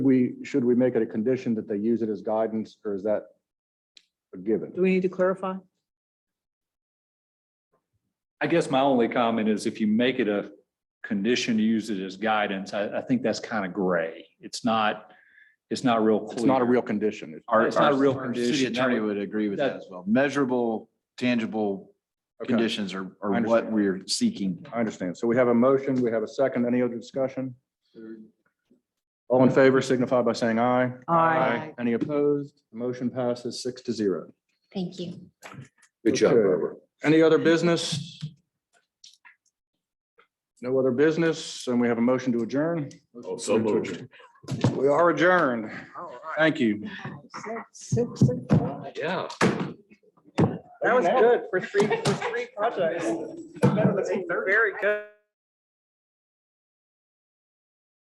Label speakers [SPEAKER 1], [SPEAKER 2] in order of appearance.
[SPEAKER 1] We, should we make it a condition that they use it as guidance, or is that a given?
[SPEAKER 2] Do we need to clarify?
[SPEAKER 3] I guess my only comment is if you make it a condition to use it as guidance, I, I think that's kind of gray. It's not, it's not real clear.
[SPEAKER 1] It's not a real condition. It's-
[SPEAKER 3] Our- It's not a real
[SPEAKER 4] Our City
[SPEAKER 3] condition. That
[SPEAKER 4] attorney
[SPEAKER 3] would-
[SPEAKER 4] would agree with
[SPEAKER 3] that-
[SPEAKER 4] that as well. Measurable, tangible
[SPEAKER 1] Okay,
[SPEAKER 4] conditions are,
[SPEAKER 1] I
[SPEAKER 4] are what
[SPEAKER 1] understand.
[SPEAKER 4] we're seeking.
[SPEAKER 1] I understand. So we have a motion, we have a second. Any other discussion? All in favor signify by saying aye.
[SPEAKER 2] Aye.
[SPEAKER 1] Any opposed? Motion passes six to zero.
[SPEAKER 5] Thank you.
[SPEAKER 6] Good job,
[SPEAKER 1] Okay.
[SPEAKER 6] Robert.
[SPEAKER 1] Any other business? No other business, and we have a motion to adjourn.
[SPEAKER 6] Oh, So moved.
[SPEAKER 1] We are adjourned. Thank you.
[SPEAKER 6] Yeah.
[SPEAKER 2] That was good for three, for three projects. Very good.